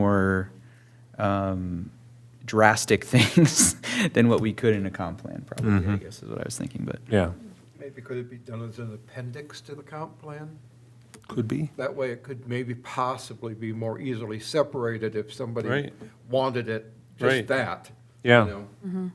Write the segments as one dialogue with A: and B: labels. A: more um, drastic things than what we could in a comp plan, probably,
B: Mm-hmm.
A: I guess is what I was thinking, but.
B: Yeah,
C: Maybe could it be done as an appendix to the comp plan?
B: could be.
C: That way it could maybe possibly be more easily separated if somebody
B: Right.
C: wanted it,
B: Right.
C: just that. you
B: Yeah.
C: know?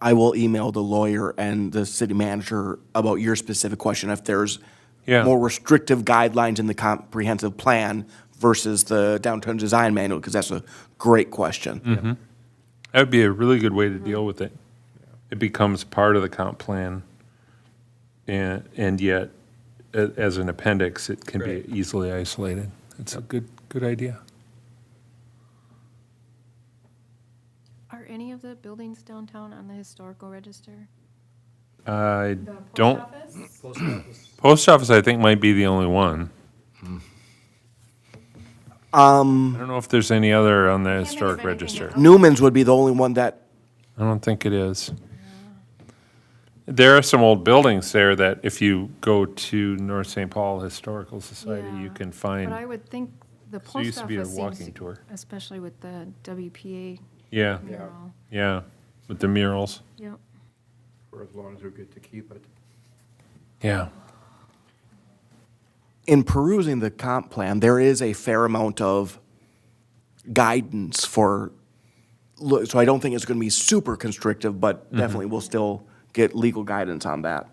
D: I will email the lawyer and the city manager about your specific question if there's
B: Yeah.
D: more restrictive guidelines in the comprehensive plan versus the downtown design manual, because that's a great question.
B: That would be a really good way to deal with it. It becomes part of the comp plan, and, and yet, a- as an appendix, it can be
C: Right.
B: easily isolated. That's a good, good idea.
E: Are any of the buildings downtown on the historical register?
B: I
E: The post
B: don't,
E: office?
B: Uh, post office, I think, might be the only one. Um. I don't know if there's any other on the
E: think of
B: historic
E: anything
B: register.
E: else.
D: Newman's would be the only one that,
B: I don't think it is. There are some old buildings there that if you go to North St. Paul Historical Society, you
E: Yeah.
B: can find.
E: But I would think
B: So
E: the
B: it
E: post
B: used to be a
E: office
B: walking
E: seems,
B: tour.
E: especially with the WPA
B: Yeah,
E: mural.
B: yeah, with the murals.
E: Yep.
C: For as long as we get to keep it.
B: Yeah.
D: in perusing the comp plan, there is a fair amount of guidance for, look, so I don't think it's going to be super constrictive, but definitely we'll still get legal guidance on that.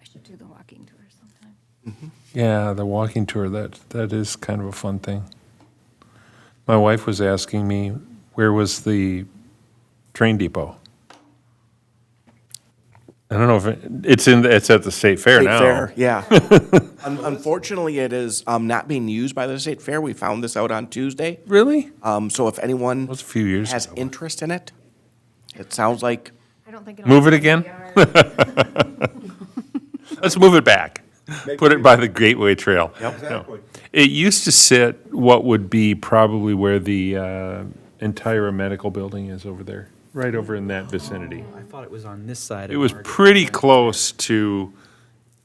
E: I should do the walking tour sometime.
B: Yeah, the walking tour, that, that is kind of a fun thing. My wife was asking me, where was the train depot? I don't know if, it- it's in, the- it's at the state fair
D: State
B: now.
D: Fair, yeah. Un- Unfortunately, it is um, not being used by the state fair. We found this out on Tuesday.
B: Really?
D: Um, So if anyone
B: was a few years
D: has
B: ago.
D: interest in it, it sounds like,
E: I don't think.
B: Move it again? Let's move it back. Put it by the Gateway Trail.
C: Exactly.
B: It used to sit what would be probably where the uh, entire medical building is over there, right over in that vicinity.
A: I thought it was on this side.
B: It was pretty close to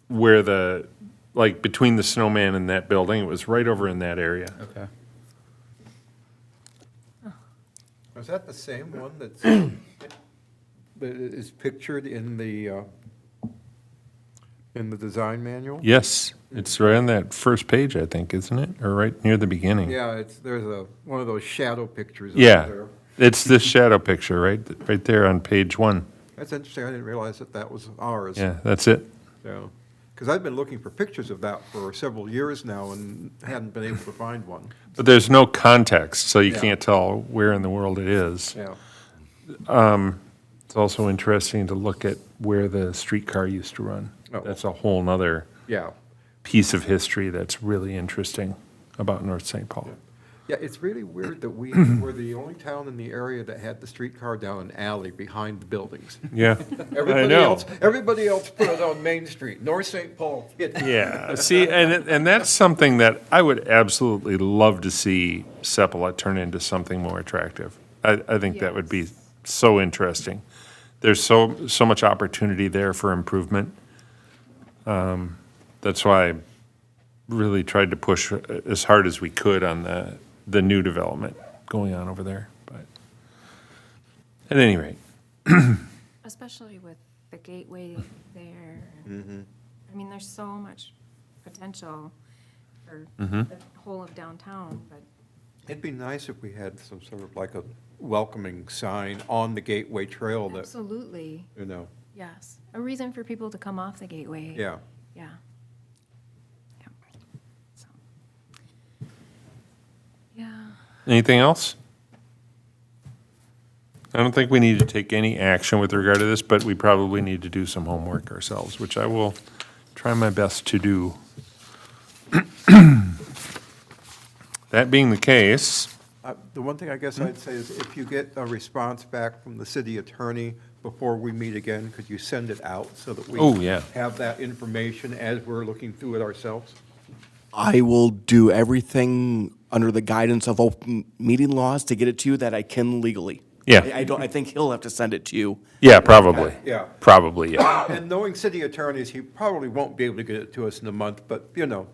B: where the, like, between the snowman and that building, it was right over in that area.
A: Okay.
C: Is that the same one that's, that is pictured in the, uh, in the design manual?
B: Yes, it's right on that first page, I think, isn't it? Or right near the beginning.
C: Yeah, it's, there's a, one of those shadow pictures. up
B: Yeah,
C: there.
B: it's this shadow picture, right, right there on page one.
C: That's interesting, I didn't realize that that was ours.
B: Yeah, that's it.
C: Because I've been looking for pictures of that for several years now and hadn't been able to find one.
B: But there's no context, so you
C: Yeah.
B: can't tell where in the world it is.
C: Yeah.
B: It's also interesting to look at where the streetcar used to run.
C: Oh.
B: That's a whole nother
C: Yeah.
B: piece of history that's really interesting about North St. Paul.
C: Yeah, it's really weird that we were the only town in the area that had the streetcar down an alley behind the buildings.
B: Yeah, I
C: Everybody
B: know.
C: else, everybody else put it on Main Street, North St. Paul.
B: Yeah, see, and, it- and that's something that I would absolutely love to see Sepulveda turn into something more attractive. I, I think that would be so interesting. There's so, so much opportunity there for improvement. Um, That's why I really tried to push uh, as hard as we could on the, the new development going on over there, but at any rate,
E: Especially with the gateway there. I mean, there's so much potential for
B: Mm-hmm.
E: the whole of downtown, but
C: It'd be nice if we had some sort of like a welcoming sign on the Gateway Trail that,
E: absolutely,
C: you know,
E: yes. A reason for people to come off the gateway.
C: yeah.
E: Yeah. Yep. So. Yeah,
B: Anything else? I don't think we need to take any action with regard to this, but we probably need to do some homework ourselves, which I will try my best to do. That being the case,
C: Uh, The one thing I guess I'd say is if you get a response back from the city attorney before we meet again, could you send it out so that we
B: Oh, yeah.
C: have that information as we're looking through it ourselves?
D: I will do everything under the guidance of open meeting laws to get it to you that I can legally.
B: Yeah.
D: I I don't, I think he'll have to send it to you.
B: Yeah, probably.
C: Yeah.
B: Probably, yeah.
C: And knowing city attorneys, he probably won't be able to get it to us in a month, but, you know,